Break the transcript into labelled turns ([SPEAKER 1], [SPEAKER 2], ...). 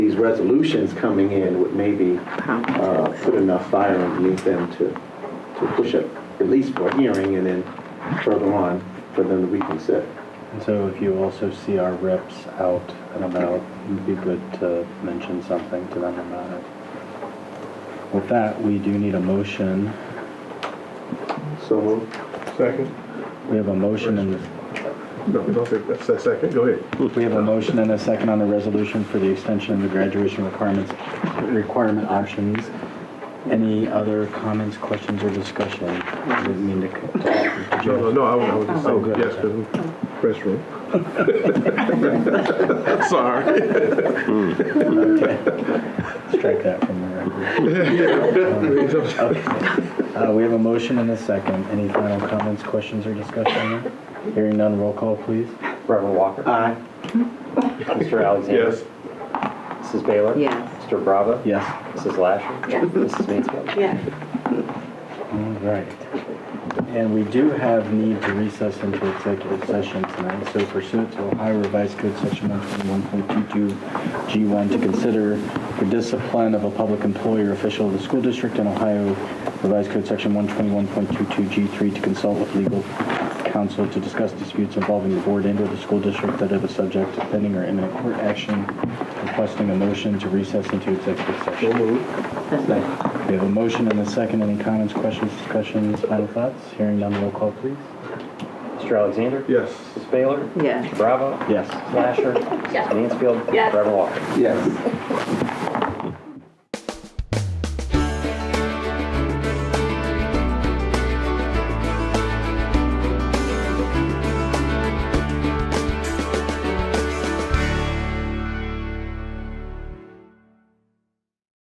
[SPEAKER 1] these resolutions coming in would maybe uh, put enough fire underneath them to, to push it, at least for a hearing, and then further on for them to reconsider.
[SPEAKER 2] And so if you also see our reps out and about, it'd be good to mention something to them about it. With that, we do need a motion.
[SPEAKER 1] So moved.
[SPEAKER 3] Second?
[SPEAKER 2] We have a motion and,
[SPEAKER 3] No, don't say that. Se- Second, go ahead.
[SPEAKER 2] we have a motion and a second on the resolution for the extension of the graduation requirements, requirement options. Any other comments, questions, or discussion? I didn't mean to cut.
[SPEAKER 3] No, no, no, I would- I would just
[SPEAKER 2] Oh, good.
[SPEAKER 3] say yes, because restroom. Sorry.
[SPEAKER 2] Strike that from the record. Uh, we have a motion and a second. Any final comments, questions, or discussion? Hearing none, roll call, please.
[SPEAKER 4] Reverend Walker.
[SPEAKER 1] Aye.
[SPEAKER 4] Mr. Alexander.
[SPEAKER 3] Yes.
[SPEAKER 4] Mrs. Baylor.
[SPEAKER 5] Yes.
[SPEAKER 4] Mr. Bravo.
[SPEAKER 2] Yes.
[SPEAKER 4] Mrs. Lasher.
[SPEAKER 5] Yes.
[SPEAKER 4] Mrs. Mansfield.
[SPEAKER 5] Yes.
[SPEAKER 2] All right. And we do have need to recess into executive session tonight, so pursuant to Ohio Revised Code Section 121.22 G1 to consider the discipline of a public employee or official of the school district and Ohio Revised Code Section 121.22 G3 to consult with legal counsel to discuss disputes involving the board and or the school district that are the subject of pending or imminent court action, requesting a motion to recess into executive session.
[SPEAKER 3] So moved.
[SPEAKER 2] We have a motion and a second. Any comments, questions, discussions, final thoughts? Hearing none, roll call, please.
[SPEAKER 4] Mr. Alexander.
[SPEAKER 3] Yes.
[SPEAKER 4] Mrs. Baylor.
[SPEAKER 5] Yes.
[SPEAKER 4] Bravo.
[SPEAKER 2] Yes.
[SPEAKER 4] Mrs. Lasher. Mrs. Mansfield. Reverend Walker.
[SPEAKER 1] Yes.